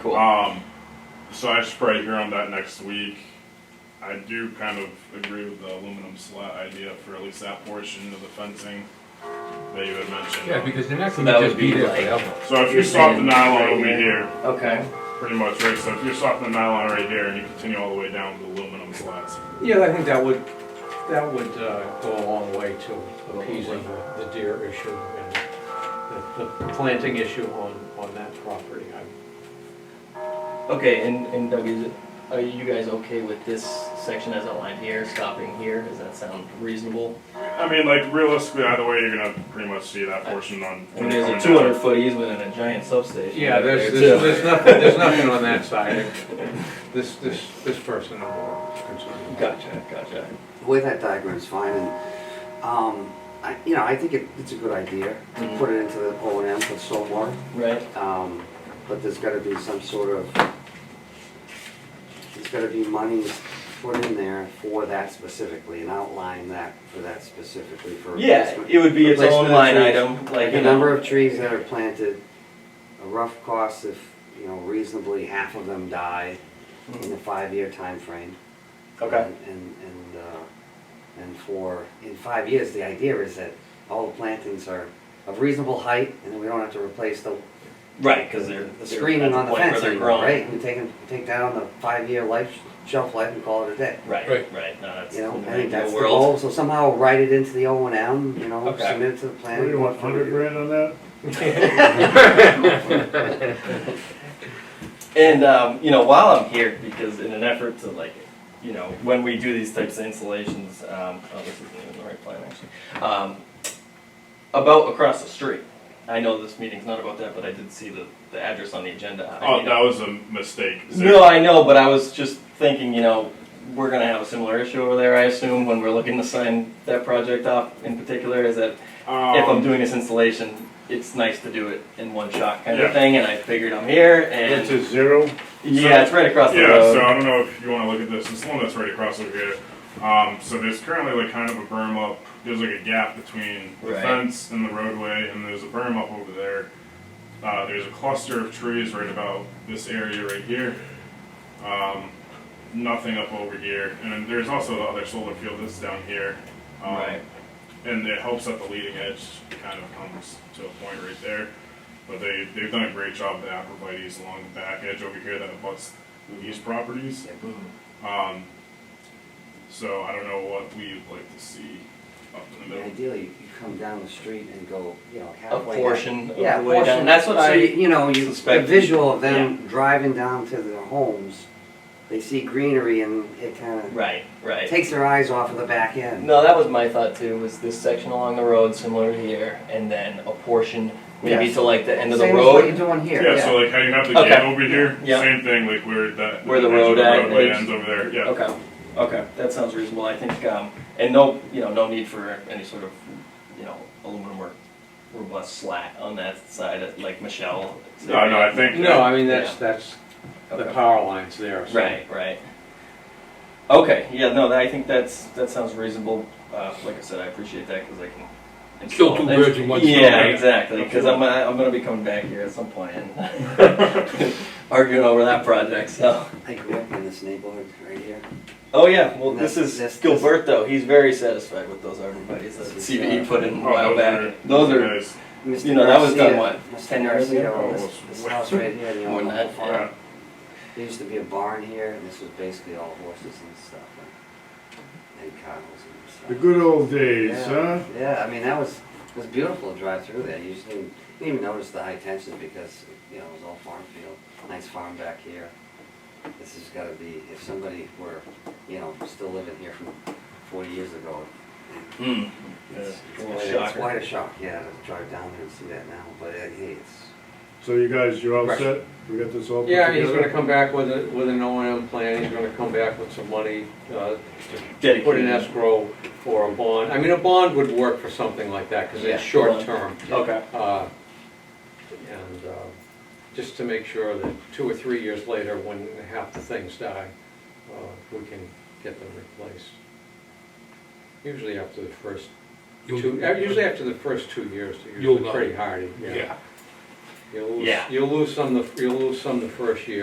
Cool. Um, so I should probably hear on that next week. I do kind of agree with the aluminum slat idea for at least that portion of the fencing that you had mentioned. Yeah, because they're not So gonna that just would be be there like- forever. so if you You're stop the saying nylon right over here. here, Okay. pretty much right. So if you stop the nylon right here and you continue all the way down to the aluminum slats, Yeah, I think that would, that would uh, go a long way to appeasing the the deer issue and the- the planting issue on, on that property. I- Okay, and, and Doug, is it, are you guys okay with this section as outlined here, stopping here? Does that sound reasonable? I mean, like realistically, either way, you're gonna pretty much see that portion on. I mean, there's coming a out. two hundred foot easement and a giant substation. Yeah, right there's, there, there's, too. there's nothing, there's nothing on that side. This, this, this person I'm more concerned about. Gotcha, gotcha. The way that diagram is fine, and, um, I, you know, I think it, it's a good idea to Mhm. put it into the O and M for stormwater. Right, Um, but there's gotta be some sort of, there's gotta be money put in there for that specifically, and outline that for that specifically for yeah, replacement. it would be its Replacement own of line trees. item, like, The you know, number of trees that are planted, a rough cost if, you know, reasonably half of them die Mm-hmm. in a five-year time frame. okay, And, and, and, uh, and for, in five years, the idea is that all the plantings are of reasonable height, and we don't have to replace the, right, cause they're. the they're screening at on the point where fence they're anymore, grown. right? And take, 'em- take down the five-year life, shelf life and call it a day. Right, Right. right, no, that's. You know, in the I think ideal that's the world. goal, so somehow write it into the O and M, you know, Okay. submit it to the planning. What do you board want, for hundred review. grand on that? And um, you know, while I'm here, because in an effort to like, you know, when we do these types of installations, um, oh, this isn't even the right plan actually. Um, about across the street. I know this meeting's not about that, but I did see the, the address on the agenda. I Oh, mean, that was a mistake. no, I know, but I was just thinking, you know, we're gonna have a similar issue over there, I assume, when we're looking to sign that project off in particular, is that Um, if I'm doing this installation, it's nice to do it in one shot kind of Yeah. thing, and I figured I'm here and It's a zero. yeah, it's right across the yeah, road. so I don't know if you want to look at this. It's the one that's right across over here. Um, so there's currently like kind of a berm up. There's like a gap between the Right. fence and the roadway, and there's a berm up over there. Uh, there's a cluster of trees right about this area right here. Um, nothing up over here, and then there's also the other solar field that's down here. Um, Right. And it helps that the leading edge kind of comes to a point right there. But they, they've done a great job, the Aprovites along the back edge over here that abuts these properties. Um, so I don't know what we would like to see up in the middle. Ideally, you come down the street and go, you know, a halfway. down. portion of Yeah, the way down. portion. That's what So, you I. you know, you, the suspected. visual of them driving down to their homes, they see greenery and it kinda Right, right. takes their eyes off of the back end. No, that was my thought too. Was this section along the road similar to here, and then a portion maybe Yes. to like the end of the Same as what road? you're doing here, Yeah, so yeah. like how you have the Okay. gate over here, Yeah. same thing, like where that. Where the edge of road at- roadway ends. ends over there, yeah. Okay, okay, that sounds reasonable. I think, um, and no, you know, no need for any sort of, you know, aluminum or robust slat on that side, like Michelle. said. No, no, I think. No, I mean, that's, that's, the Okay. power line's there, so. Right, right. Okay, yeah, no, that- I think that's, that sounds reasonable. Uh, like I said, I appreciate that because I can. Kill two birds with one stone, Yeah, right? exactly, because I'm, gonna- I'm gonna be coming back here at some point and arguing over that project, so. I grew up in this neighborhood right here. Oh, yeah, well, this That's- is that's- that's- Gilberto, he's very satisfied with those arborvitaes that the CVE put in a Oh, while those back. are- Those are, guys, Mr. You know, that was done, Garcia- what, Mr. 10 years Garcia ago? owned Oh, This it was this way- house right here, the More old than that, farm. yeah. There used to be a barn here, and this was basically all horses and stuff, and- and cows and stuff. The good old days, huh? Yeah, yeah, I mean, that was, it was beautiful to drive through there, you just didn't, didn't even notice the high tension because, you know, it was all farm field, nice farm back here. This has gotta be, if somebody were, you know, still living here from forty years ago, hmm. it's, Yeah, it's well, quite a- it's shocker. quite a shock, yeah, to drive down there and see that now, but uh, hey, it's, So you guys, you're all Right. set? We got this all put Yeah, he's gonna together? come back with a, with an O and M plan, he's gonna come back with some money, uh, to put in Dedicated. escrow for a bond. I mean, a bond would work for something like that, cause Yeah, it's short bond. term. Okay, Uh, And uh, just to make sure that two or three years later, when half the things die, uh, we can get them replaced. Usually after the first You'll- two, uh, usually after the first two years, they're You'll usually know. pretty hardy. Yeah. You'll lose, Yeah. you'll lose some, the you'll lose some the first year.